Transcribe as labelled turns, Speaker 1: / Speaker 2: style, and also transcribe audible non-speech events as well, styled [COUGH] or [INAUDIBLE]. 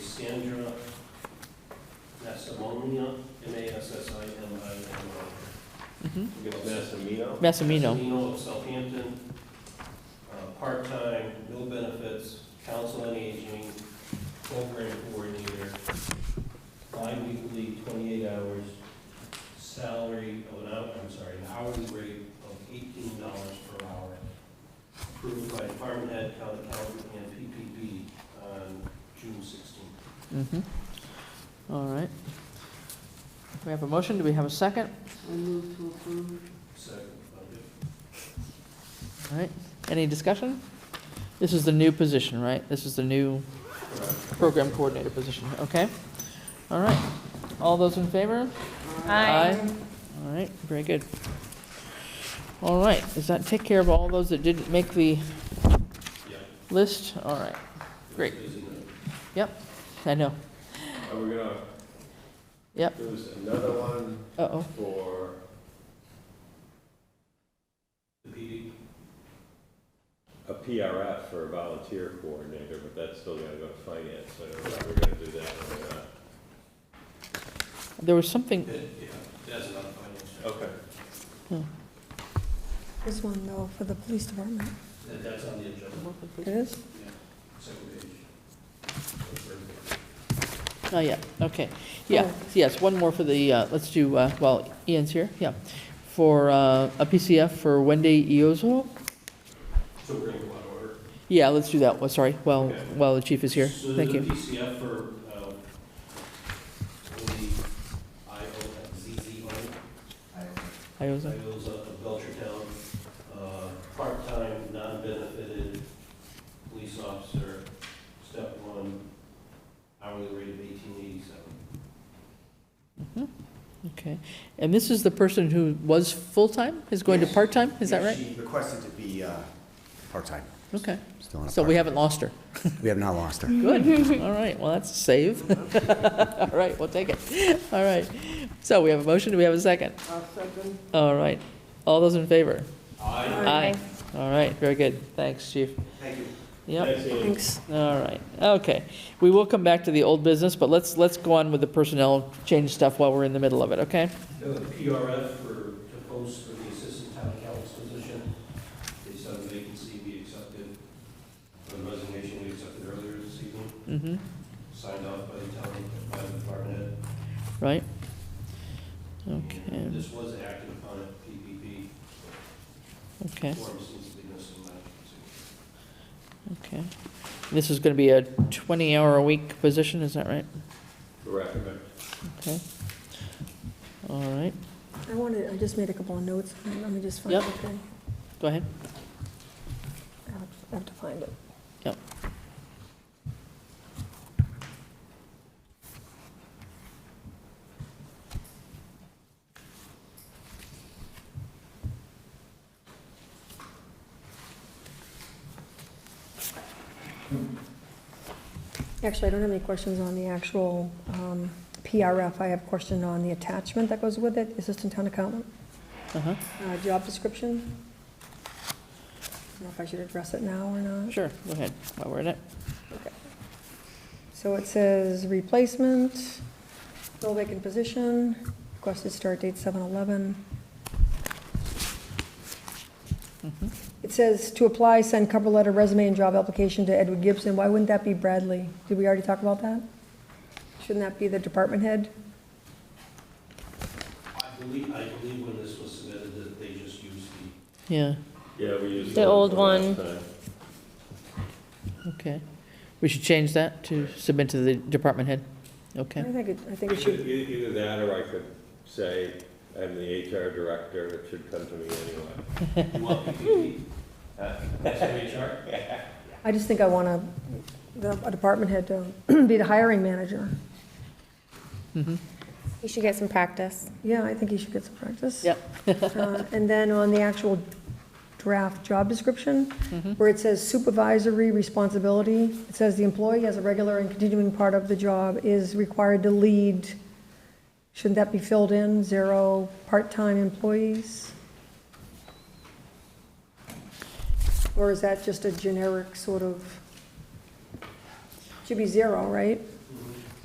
Speaker 1: Sandra Massimino, M-A-S-S-I-M-I-N-O.
Speaker 2: Mhm.
Speaker 1: Give us-
Speaker 2: Massimino.
Speaker 1: Massimino of Southampton, uh, part-time, no benefits, council on aging, program coordinator, bi-weekly, 28 hours, salary of an hour, I'm sorry, an hourly rate of $18 per hour, approved by department head, town accountant, and PPP on June 16th.
Speaker 2: Mhm. Mm-hmm. All right. We have a motion, do we have a second?
Speaker 3: I move to approve.
Speaker 1: Second, uh,
Speaker 2: All right, any discussion? This is the new position, right? This is the new
Speaker 1: correct.
Speaker 2: program coordinator position, okay? All right, all those in favor?
Speaker 4: Aye.
Speaker 2: All right, very good. All right, does that take care of all those that didn't make the
Speaker 1: Yeah.
Speaker 2: list? All right, Great.
Speaker 1: Isn't it?
Speaker 2: I know,
Speaker 5: Are we gonna?
Speaker 2: Yep.
Speaker 5: There's another one
Speaker 2: uh-oh,
Speaker 5: for,
Speaker 1: The PD,
Speaker 5: a PRF for a volunteer coordinator, but that's still gonna go to finance, so I don't know if we're gonna do that or not.
Speaker 2: there was something,
Speaker 1: yeah, that's not a finance check.
Speaker 5: Okay.
Speaker 4: There's one though for the police department.
Speaker 1: That- That's on the agenda.
Speaker 4: It is?
Speaker 1: Second page.
Speaker 2: oh, yeah, okay. Yeah, yes, one more for the, uh, let's do, uh, well, Ian's here, yeah. For uh, a PCF for Wendy Iozzo?
Speaker 1: So we're going to go out of order.
Speaker 2: Yeah, let's do that, well, sorry, while,
Speaker 1: Okay.
Speaker 2: while the chief is here,
Speaker 1: So
Speaker 2: thank you.
Speaker 1: the PCF for, um, the IOZZO, IO's
Speaker 2: Iozzo,
Speaker 1: of Belchertown, uh, part-time, non-benefited police officer, step one, hourly rate of eighteen eighty-seven.
Speaker 2: okay. And this is the person who was full-time, is going to
Speaker 6: Yes.
Speaker 2: part-time, is that
Speaker 6: Yeah,
Speaker 2: right?
Speaker 6: She requested to be uh, part-time,
Speaker 2: Okay,
Speaker 6: still on a
Speaker 2: so we
Speaker 6: part-
Speaker 2: haven't lost her.
Speaker 6: We have not lost her.
Speaker 2: Good, all right, well, that's a save. [LAUGHS] All right, we'll take it, all right. So we have a motion, do we have a second?
Speaker 3: I'll second.
Speaker 2: All right, all those in favor?
Speaker 1: I,
Speaker 4: Aye.
Speaker 2: All right, very good, thanks, chief.
Speaker 6: Thank you.
Speaker 2: Yep,
Speaker 5: Thanks, Ian.
Speaker 4: Thanks.
Speaker 2: all right, okay. We will come back to the old business, but let's, let's go on with the personnel change stuff while we're in the middle of it, okay?
Speaker 1: the PRF for, to post for the assistant town accountant's position, they said the vacancy we accepted, for the resignation we accepted earlier this evening.
Speaker 2: Mm-hmm,
Speaker 1: signed off by the town, by the department head.
Speaker 2: right? Okay,
Speaker 1: And This was acted upon at PPP,
Speaker 2: okay.
Speaker 1: form seems to be missing that.
Speaker 2: Okay. This is going to be a 20-hour-a-week position, is that right?
Speaker 5: Correct.
Speaker 2: Okay. All right,
Speaker 4: I wanted, I just made a couple of notes. Let me just find it.
Speaker 2: Yep.
Speaker 4: okay?
Speaker 2: go ahead.
Speaker 4: I have- I have to find it.
Speaker 2: Yep.
Speaker 4: Actually, I don't have any questions on the actual um, PRF. I have a question on the attachment that goes with it, Assistant Town Accountant,
Speaker 2: Uh-huh,
Speaker 4: uh, job description. I don't know if I should address it now or not.
Speaker 2: sure, go ahead, while we're in it.
Speaker 4: So it says replacement, fill vacant position, requested start date 7/11.
Speaker 2: Mhm.
Speaker 4: It says to apply, send cover letter, resume, and job application to Edward Gibson. Why wouldn't that be Bradley? Did we already talk about that? Shouldn't that be the department head?
Speaker 1: I believe, I believe when this was submitted, that they just used the,
Speaker 2: Yeah,
Speaker 5: Yeah, we used.
Speaker 7: The
Speaker 5: one
Speaker 7: old
Speaker 5: from last time.
Speaker 2: okay. We should change that to submit to the department head?
Speaker 4: I
Speaker 2: Okay,
Speaker 4: think it, I think it should,
Speaker 5: E- Either that, or I could say, I'm the HR director, it should come to me anyway.
Speaker 1: you want PPP? That's HR?
Speaker 4: I just think I want a, the- a department head to [CLEARS THROAT] be the hiring manager.
Speaker 7: You should get some practice.
Speaker 4: Yeah, I think he should get some practice.
Speaker 2: Yep.
Speaker 4: Uh, And then on the actual draft job description, where it says supervisory responsibility, it says the employee as a regular and continuing part of the job is required to lead. Shouldn't that be filled in, zero part-time employees? Or is that just a generic sort of, should be zero, right?